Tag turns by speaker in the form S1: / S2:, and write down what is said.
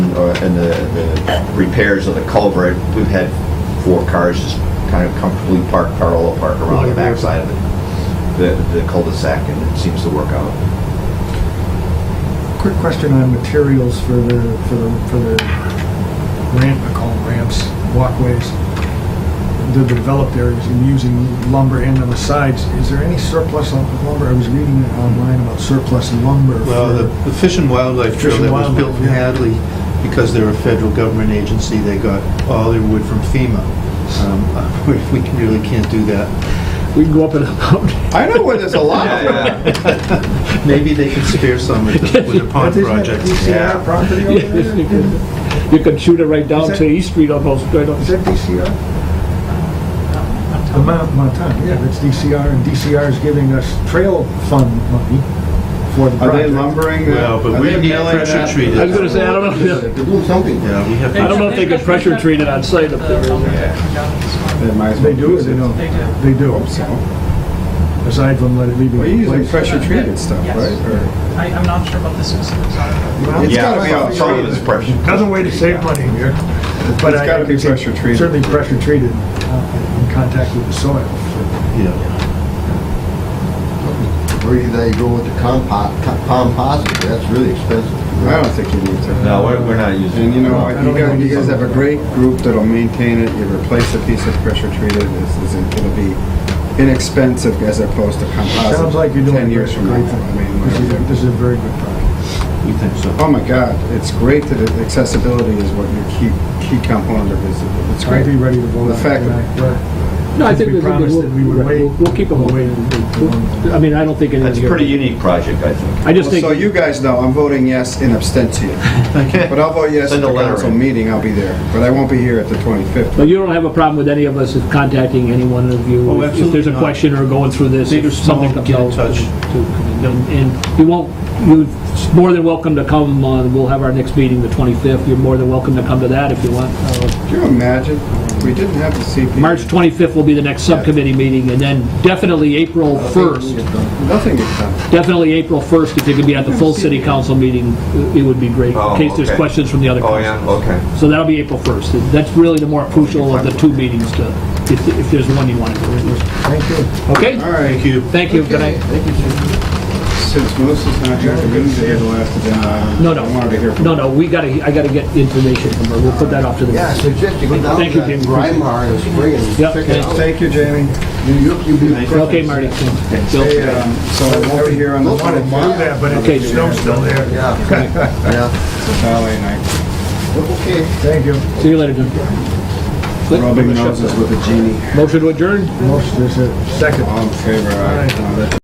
S1: uh, and the, the repairs of the culvert, we've had four cars just kind of comfortably parked, parallel park around the backside of the, the- the cul-de-sac, and it seems to work out.
S2: Quick question on materials for the, for the, for the ramp, I call them ramps, walkways. The developed areas and using lumber and on the sides, is there any surplus of lumber? I was reading online about surplus lumber
S3: Well, the
S2: for,
S3: the Fish and Wildlife
S2: Fish
S3: Trail
S2: and
S3: that was built in
S2: Wildlife, yeah.
S3: Hadley, because they're a federal government agency, they got all their wood from FEMA. Um, We we really can't do that.
S4: We can go up and up.
S1: I know where there's a lot
S3: Maybe they could spare some with the with the pond
S2: Isn't that
S3: project.
S2: DCR
S1: yeah.
S2: property over
S4: Yes, you
S2: there?
S4: could. You could shoot it right down
S2: Is
S4: to
S2: that-
S4: East Street almost, right
S2: Is
S4: on.
S2: that DCR? The Mount, Montana, yeah, that's DCR, and DCR is giving us trail fund money for the project.
S1: Are they lumbering? uh,
S3: Well, but
S1: are
S3: we
S1: they
S3: need
S1: mailing
S3: pressure
S1: that?
S3: treated.
S4: I was gonna say, I don't know.
S1: They're doing something.
S3: Yeah, we have,
S4: I don't
S3: to-
S4: know if they could pressure treat it on site up there.
S1: They might as well
S2: They do or they don't?
S5: They do.
S2: They do. Aside from let it leave.
S6: We're using pressure
S5: treated
S6: treated
S5: stuff,
S6: stuff,
S5: Yes. right?
S6: right?
S5: I, I'm not sure about the specifics on it.
S1: It's gotta be on some of this pressure.
S2: Another way to save money here. But
S6: It's
S2: I-
S6: gotta be pressure treated.
S2: Certainly pressure treated uh, in contact with the soil.
S3: yeah.
S7: Where do they go with the compost, composite, that's really expensive.
S6: I don't think you need to.
S1: No, we're, we're not using.
S6: And you know,
S2: I
S6: you
S2: don't
S6: guys,
S2: think
S6: you
S2: we
S6: guys
S2: need
S6: have a
S2: to.
S6: great group that'll maintain it, you replace a piece of pressure treated, it's, it's- it'll be inexpensive as opposed to composite.
S2: Sounds like you're doing.
S6: Ten
S2: a
S6: years from now,
S2: great thing.
S6: I mean,
S2: This is,
S6: whatever.
S2: this is a very good project.
S3: We think so.
S6: oh my God, it's great that it- accessibility is what your key, key component of this, it's
S2: I'd
S6: great.
S2: be ready to vote
S6: The
S2: on it
S6: fact that-
S2: tonight. but
S4: No, I
S2: Since
S4: think
S2: we
S4: we think
S2: promised
S4: we'll,
S2: that we would wait.
S4: we'll we'll keep them
S2: We'll
S4: away.
S2: wait and-
S4: I mean, I don't think anything
S1: That's a
S4: here.
S1: pretty unique project, I think.
S4: I just
S6: Well,
S4: think,
S6: So you guys know, I'm voting yes in abstention. But I'll vote yes at
S1: Send a
S6: the
S1: letter
S6: council
S1: in.
S6: meeting, I'll be there, but I won't be here at the 25th.
S4: but you don't have a problem with any of us contacting any one of you?
S3: Oh,
S4: if- If
S3: absolutely
S4: there's a
S3: not.
S4: question or going through this,
S3: Big or
S4: if something
S3: small,
S4: comes
S3: get in
S4: out.
S3: touch.
S4: to- to- And you won't, you're more than welcome to come, uh, we'll have our next meeting the 25th. You're more than welcome to come to that if you want. Uh,
S6: Can you imagine? We didn't have the CP.
S4: March 25th will be the next subcommittee meeting, and then definitely April
S3: Uh,
S4: 1st,
S6: Nothing gets done.
S4: definitely April 1st, if you could be at the full city council meeting, it would be great, in
S1: Oh,
S4: case there's
S1: okay.
S4: questions from the other
S1: Oh,
S4: councils.
S1: yeah, okay.
S4: So that'll be April 1st. That's really the more crucial of the two meetings to, if, if there's one you want to go into.
S2: Thank you.
S4: Okay?
S6: All right,
S3: Thank you.
S4: Thank you. Good night.
S6: since Melissa's not here, we're going to do the last agenda item.
S4: No, no.
S6: I wanted to hear from
S4: No, no, we gotta, I gotta get information from her. We'll put that off to the.
S7: Yeah, I suggest you go down to
S4: Thank you, Jim.
S7: Grimar in the spring and
S4: Yep.
S7: check it out.
S6: Thank you, Jamie.
S7: You- you- you-
S4: Okay, Marty.
S6: Hey, um, So I won't be here on the
S7: Look,
S6: twenty
S7: Mark.
S6: fifth.
S2: Do that, but if
S4: Okay.
S2: the snow's still there,
S7: Yeah, yeah,
S6: ballet night.
S7: okay.
S2: thank you.
S4: See you later, Jim.
S6: Rubbing noses with a genie.
S4: Motion to adjourn?
S2: Most, there's a second.
S6: All in favor, aye.
S2: Aye.
S6: No, that-